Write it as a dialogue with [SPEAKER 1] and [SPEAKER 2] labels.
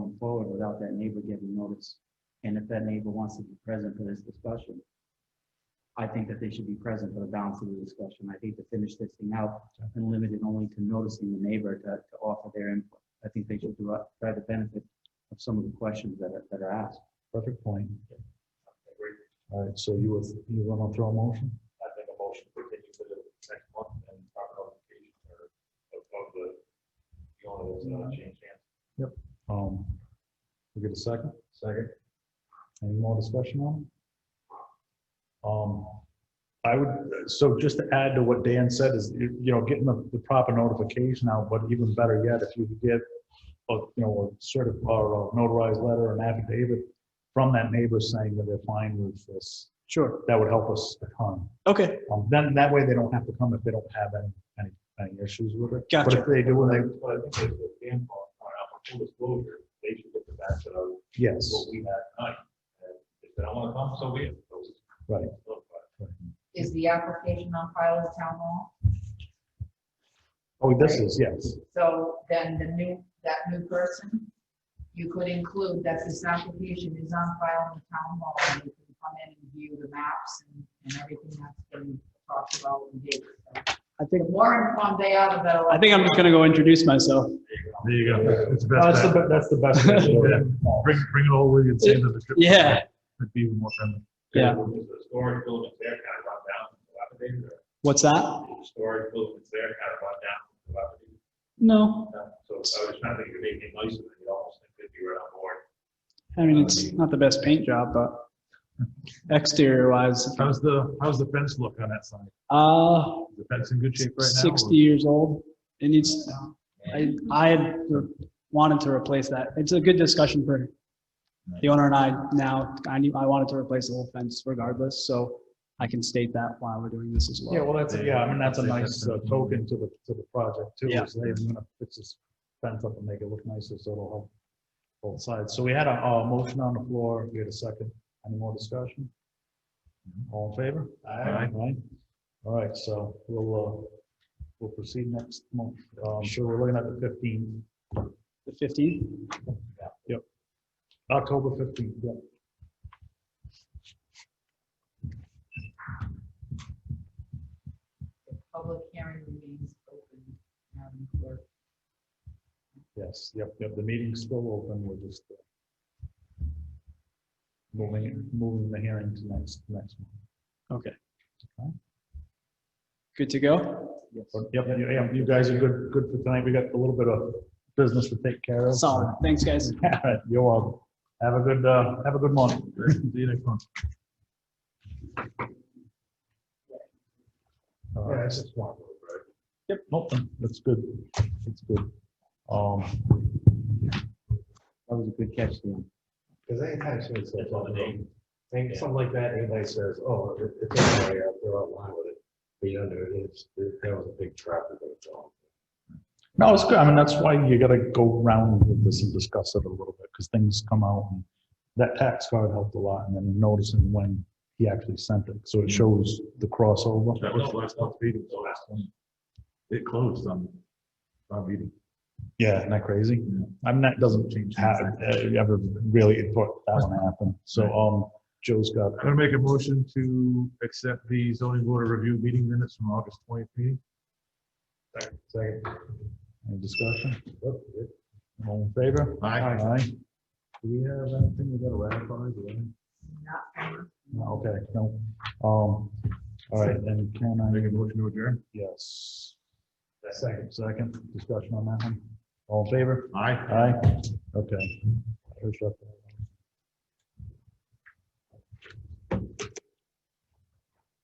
[SPEAKER 1] forward without that neighbor giving notice. And if that neighbor wants to be present for this discussion, I think that they should be present for the balance of the discussion. I hate to finish this thing out and limit it only to noticing the neighbor to, to offer their input. I think they should do, try the benefit of some of the questions that are, that are asked.
[SPEAKER 2] Perfect point. All right, so you would, you want to throw a motion?
[SPEAKER 3] I make a motion to continue to the next month and our notification or of of the, the owner that's not changed hands.
[SPEAKER 2] Um, we get a second? Second. Any more discussion on? it? Um, I would, so just to add to what Dan said is, you you know, getting the, the proper notification out, but even better yet, if you could get a, you know, a certi- or a notarized letter, an affidavit from that neighbor saying that they're fine with this,
[SPEAKER 4] Sure.
[SPEAKER 2] that would help us a ton.
[SPEAKER 4] Okay.
[SPEAKER 2] Um, then that way they don't have to come if they don't have any, any, any issues with it. But
[SPEAKER 4] Gotcha.
[SPEAKER 2] if they do, and
[SPEAKER 3] But I think that's what Dan brought out, full disclosure, they should get the back of
[SPEAKER 2] they, yes.
[SPEAKER 3] what we had tonight. And If they don't wanna come, so be it. So it's-
[SPEAKER 2] Right.
[SPEAKER 3] Look, but
[SPEAKER 5] Is the application on file at town hall?
[SPEAKER 2] Oh, this is, yes.
[SPEAKER 5] So then the new, that new person, you could include that this application is on file in the town hall. and You can come in and view the maps and, and everything that's been talked about and did. So
[SPEAKER 4] I
[SPEAKER 5] The
[SPEAKER 4] think,
[SPEAKER 5] more informed they are, the better.
[SPEAKER 4] I think I'm just gonna go introduce myself.
[SPEAKER 3] There you go. It's
[SPEAKER 2] That's the, be- that's the best. way to do it.
[SPEAKER 3] Bring, bring it all with you and
[SPEAKER 4] save
[SPEAKER 3] the trip.
[SPEAKER 4] Yeah,
[SPEAKER 3] It'd be even more friendly.
[SPEAKER 4] Yeah.
[SPEAKER 3] Storage buildings there kind of run down, dilapidated, or
[SPEAKER 4] what's that?
[SPEAKER 3] storage buildings there kind of run down, dilapidated.
[SPEAKER 4] No,
[SPEAKER 3] So I was trying to think of anything nicer than you almost think if you were on board.
[SPEAKER 4] I mean, it's not the best paint job, but exterior wise,
[SPEAKER 3] How's the, how's the fence look on that side?
[SPEAKER 4] uh,
[SPEAKER 3] Is The fence in good shape right now? or-
[SPEAKER 4] sixty years old. It needs, I, I had wanted to replace that. It's a good discussion for the owner and I now. I knew, I wanted to replace the whole fence regardless, so I can state that while we're doing this as well.
[SPEAKER 2] Yeah, well, that's, yeah, I mean, that's a nice uh, token to the, to the project too.
[SPEAKER 4] Yeah.
[SPEAKER 2] is They're gonna fix this fence up and make it look nicer, so it'll help both sides. So we had a, a motion on the floor. We had a second. Any more discussion? All in favor?
[SPEAKER 3] Aye.
[SPEAKER 2] Aye. All right, so we'll, uh, we'll proceed next month. Um, sure, we're looking at the fifteenth.
[SPEAKER 4] The fifteenth?
[SPEAKER 2] Yep. October fifteenth, yep.
[SPEAKER 5] Public hearing remains open. um, Madam Clerk.
[SPEAKER 2] Yes, yep, yep, the meeting's still open, we're just uh, moving, it- moving the hearing to next, next month.
[SPEAKER 4] Okay. Good to go?
[SPEAKER 2] But yep, you, yeah, you guys are good, good for tonight, we got a little bit of business to take care of.
[SPEAKER 4] Solid. Thanks, guys.
[SPEAKER 2] All right, You're welcome. Have a good, uh, have a good morning. See you next month. All right. Yep, nope, that's good, that's good. Um,
[SPEAKER 1] That was a good catch, Dan.
[SPEAKER 6] Because anytime someone says,
[SPEAKER 3] It's on the name.
[SPEAKER 6] think something like that, anybody says, oh, it- it's okay, I'll throw out line with it. But you know, it's, it- that was a big traffic jam.
[SPEAKER 2] No, it's good. I mean, that's why you gotta go around with this and discuss it a little bit, because things come out. and That tax card helped a lot, and then noticing when he actually sent it, so it shows the crossover.
[SPEAKER 3] Mm-hmm. That was the last month's meeting, so last one. It closed on, on meeting.
[SPEAKER 2] Yeah, isn't that crazy? I mean, that doesn't change how, uh, ever really important that one happened. So, um, Joe's got,
[SPEAKER 3] I'm gonna make a motion to accept the zoning board of review meeting minutes from August twentieth meeting.
[SPEAKER 6] Second,
[SPEAKER 2] any discussion? All in favor?
[SPEAKER 3] Aye.
[SPEAKER 2] Aye. Do we have anything we gotta ratify? Do we?
[SPEAKER 5] Not
[SPEAKER 2] No, Okay, no. Um, all right, then can I?
[SPEAKER 3] Make a motion to adjourn.
[SPEAKER 2] Yes. Second, second, discussion on that one. All in favor?
[SPEAKER 3] Aye.
[SPEAKER 2] Aye. Okay. Push up.